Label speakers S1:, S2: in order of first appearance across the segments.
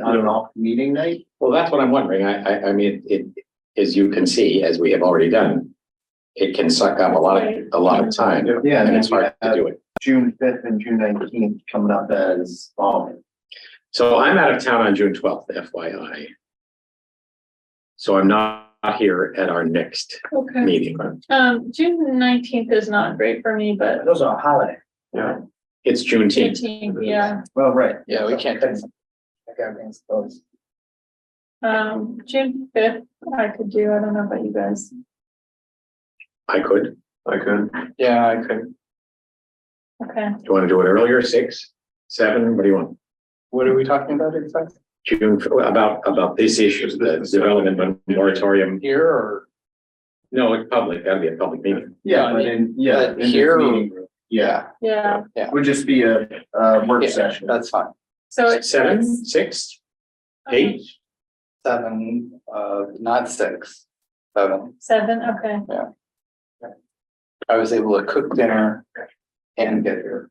S1: on an off meeting night?
S2: Well, that's what I'm wondering. I, I, I mean, it, as you can see, as we have already done, it can suck up a lot of, a lot of time
S1: Yeah,
S2: and it's hard to do it.
S1: June fifth and June nineteenth coming up as, um,
S2: So I'm out of town on June twelfth, FYI. So I'm not here at our next
S3: Okay,
S2: meeting.
S3: um, June nineteenth is not great for me, but
S1: those are a holiday.
S2: Yeah. It's Juneteenth.
S3: eighteenth, yeah.
S1: Well, right.
S2: Yeah, we can't-
S1: Okay, everything's closed.
S3: Um, June fifth, I could do, I don't know about you guys.
S2: I could. Do
S4: I could.
S1: Yeah, I could.
S3: Okay,
S2: you want to do it earlier? Six, seven? What do you want?
S4: What are we talking about exactly?
S2: June, about, about these issues, the development moratorium.
S4: Here or?
S2: No, it's public. That'd be a public meeting.
S1: Yeah, but in, yeah. in
S4: But
S1: this
S4: here-
S1: meeting room. Yeah,
S3: yeah,
S1: would just be a, a work
S4: Yeah,
S1: session.
S4: That's fine.
S3: so it's. um,
S2: Seven, six, eight?
S4: Seven, uh, not six, seven.
S3: Seven, okay,
S4: I was able to cook dinner and get here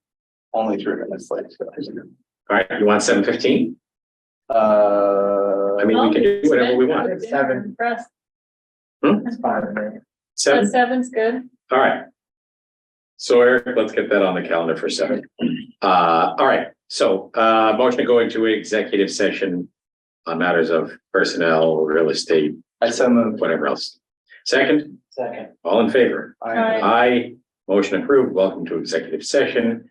S4: only three minutes late. so.
S2: All right, you want seven fifteen?
S4: Uh,
S2: I mean, we can do whatever we want. Hmm?
S1: Seven.
S3: seven, press,
S1: It's fine, right?
S3: so
S2: Seven,
S3: seven's good,
S2: all right. So Eric, let's get that on the calendar for seven. Uh, all right, so uh, motion to go into executive session on matters of personnel, real estate,
S4: I so moved.
S2: whatever else. Second,
S4: Second.
S2: all in favor?
S3: Aye.
S2: Aye, motion approved. Welcome to executive session.